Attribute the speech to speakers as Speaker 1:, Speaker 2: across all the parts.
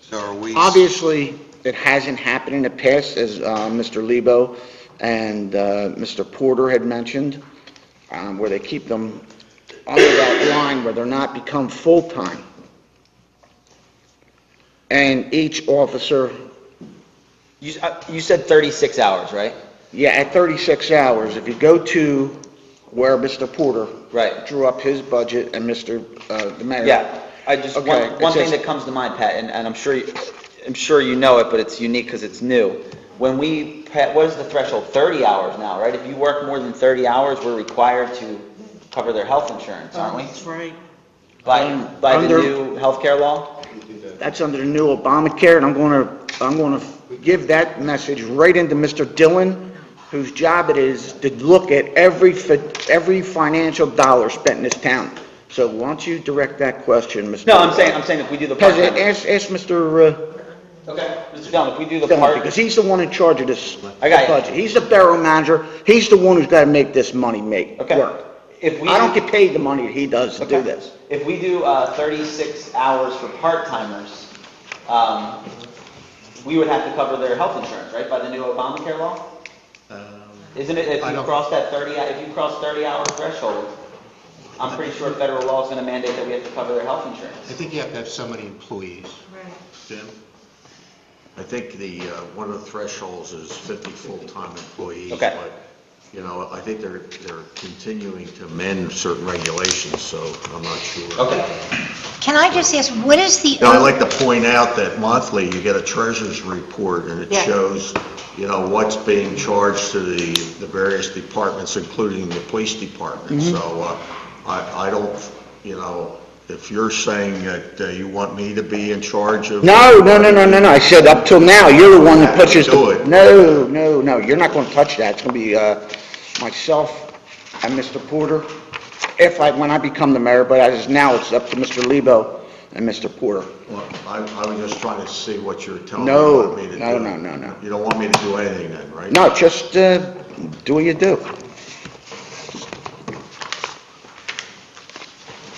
Speaker 1: So are we,
Speaker 2: Obviously, it hasn't happened in the past, as uh, Mr. Lebo and uh, Mr. Porter had mentioned, um, where they keep them under that line where they're not become full-time. And each officer,
Speaker 3: You, uh, you said 36 hours, right?
Speaker 2: yeah, at 36 hours, if you go to where Mr. Porter
Speaker 3: Right.
Speaker 2: drew up his budget and Mr., uh, the mayor.
Speaker 3: Yeah, I just,
Speaker 2: Okay,
Speaker 3: one, one
Speaker 2: it
Speaker 3: thing
Speaker 2: says-
Speaker 3: that comes to mind, Pat, and, and I'm sure, you- I'm sure you know it, but it's unique because it's new. When we, Pat, what is the threshold? 30 hours now, right? If you work more than 30 hours, we're required to cover their health insurance, aren't we?
Speaker 2: That's right.
Speaker 3: By,
Speaker 2: Um,
Speaker 3: by the
Speaker 2: under-
Speaker 3: new healthcare law?
Speaker 2: That's under the new Obamacare, and I'm going to, I'm going to give that message right into Mr. Dillon, whose job it is to look at every, fi- every financial dollar spent in this town. So why don't you direct that question, Mr.?
Speaker 3: No, I'm saying, I'm saying if we do the
Speaker 2: Because
Speaker 3: part-time.
Speaker 2: it- ask, ask Mr.
Speaker 3: Okay, Mr. Dillon, if we do the
Speaker 2: Dillon,
Speaker 3: part,
Speaker 2: because he's the one in charge of this
Speaker 3: I got you.
Speaker 2: budget. He's the borough manager, he's the one who's got to make this money make,
Speaker 3: okay.
Speaker 2: work.
Speaker 3: If we.
Speaker 2: I don't get paid the money that he does to do
Speaker 3: Okay.
Speaker 2: this.
Speaker 3: If we do uh, 36 hours for part-timers, um, we would have to cover their health insurance, right, by the new Obamacare law? Isn't it, if
Speaker 4: Um, I
Speaker 3: you
Speaker 4: don't-
Speaker 3: cross that 30, if you cross 30-hour threshold, I'm pretty sure federal law is going to mandate that we have to cover their health
Speaker 4: I
Speaker 3: insurance.
Speaker 4: think you have to have so many employees. Jim?
Speaker 1: I think the, uh, one of the thresholds is 50 full-time employees.
Speaker 3: Okay.
Speaker 1: but, You know, I think they're, they're continuing to amend certain regulations, so I'm not sure.
Speaker 3: Okay,
Speaker 5: Can I just ask, what is the?
Speaker 1: Now, I'd like to point out that monthly, you get a treasurer's report, and it
Speaker 5: Yeah.
Speaker 1: shows, you know, what's being charged to the, the various departments, including the police department.
Speaker 2: Mm-hmm.
Speaker 1: So, uh, I, I don't, you know, if you're saying that uh, you want me to be in charge of...
Speaker 2: No, no, no, no, no, no, I said up till now, you're the one that pushes
Speaker 1: Do
Speaker 2: the...
Speaker 1: it.
Speaker 2: No, no, no, you're not gonna touch that, it's gonna be, uh, myself and Mr. Porter, if I, when I become the mayor, but as now, it's up to Mr. Lebo and Mr. Porter.
Speaker 1: Well, I, I was just trying to see what you're telling me
Speaker 2: No,
Speaker 1: you want me to do.
Speaker 2: no, no, no, no.
Speaker 1: You don't want me to do anything then, right?
Speaker 2: No, just, uh, do what you do.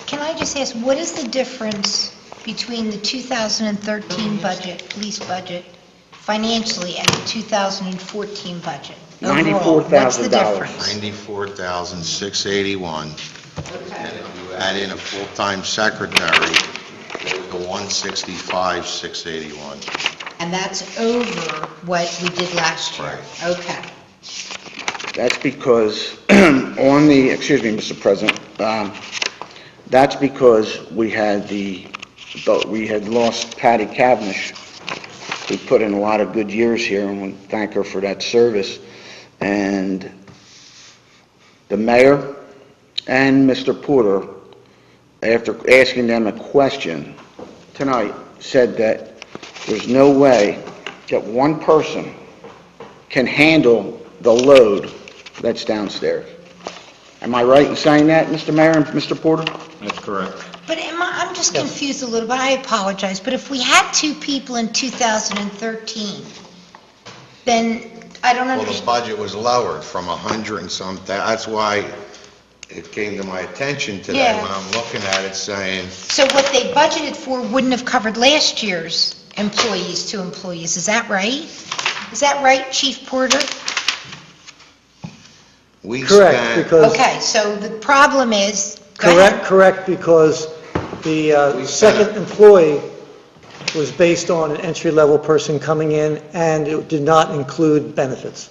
Speaker 5: Can I just ask, what is the difference between the 2013 budget, police budget, financially, and the 2014 budget? Overall, What's the
Speaker 2: $94,000.
Speaker 5: difference?
Speaker 6: Ninety-four thousand, six eighty-one,
Speaker 5: Okay.
Speaker 6: and if you add in a full-time secretary, the one sixty-five, six eighty-one.
Speaker 5: And that's over what we did last year? Okay.
Speaker 2: That's because on the, excuse me, Mr. President, um, that's because we had the, but we had lost Patty Cavendish, who put in a lot of good years here, and we thank her for that service. And the mayor and Mr. Porter, after asking them a question tonight, said that there's no way that one person can handle the load that's downstairs. Am I right in saying that, Mr. Mayor and Mr. Porter?
Speaker 6: That's correct.
Speaker 5: But am I, I'm just confused a little bit, I apologize, but if we had two people in 2013, then I don't
Speaker 6: Well, the
Speaker 5: understand.
Speaker 6: budget was lowered from a hundred and some, thou- that's why it came to my attention today
Speaker 5: Yeah.
Speaker 6: when I'm looking at it saying,
Speaker 5: So what they budgeted for wouldn't have covered last year's employees to employees, is that right? Is that right, Chief Porter?
Speaker 6: we
Speaker 7: Correct,
Speaker 6: spent,
Speaker 7: because,
Speaker 5: Okay, so the problem is, go ahead.
Speaker 7: correct, correct, because the uh,
Speaker 6: We
Speaker 7: second
Speaker 6: spent-
Speaker 7: employee was based on an entry-level person coming in, and it did not include benefits.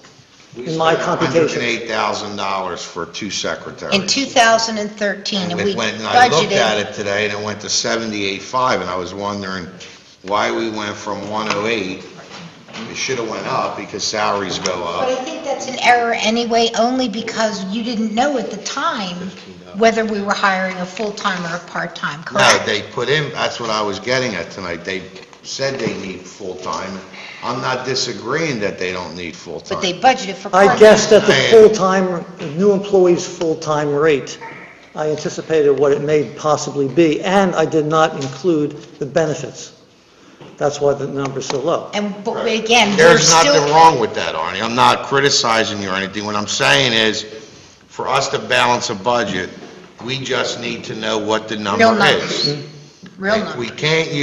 Speaker 6: we
Speaker 7: in my
Speaker 6: spent
Speaker 7: computation.
Speaker 6: $108,000 for two secretaries.
Speaker 5: in 2013, and
Speaker 6: And
Speaker 5: we
Speaker 6: it went, and I looked at
Speaker 5: budgeted,
Speaker 6: it today, and it went to 78.5, and I was wondering why we went from 108, it should have went up because salaries go
Speaker 5: but
Speaker 6: up.
Speaker 5: I think that's an error anyway, only because you didn't know at the time whether we were hiring a full-time or a part-time,
Speaker 6: No,
Speaker 5: correct?
Speaker 6: they put in, that's what I was getting at tonight, they said they need full-time. I'm not disagreeing that they don't need
Speaker 5: But they
Speaker 6: full-time.
Speaker 5: budgeted for part-time.
Speaker 7: I guessed at the
Speaker 6: Man.
Speaker 7: full-time, new employee's full-time rate. I anticipated what it may possibly be, and I did not include the benefits. That's why the number's so low.
Speaker 5: And, but we- again, we're
Speaker 6: There's
Speaker 5: still...
Speaker 6: nothing wrong with that, Arnie, I'm not criticizing you or anything, what I'm saying is, for us to balance a budget, we just need to know what the number
Speaker 5: Real numbers.
Speaker 6: is.
Speaker 5: Real numbers.
Speaker 6: We can't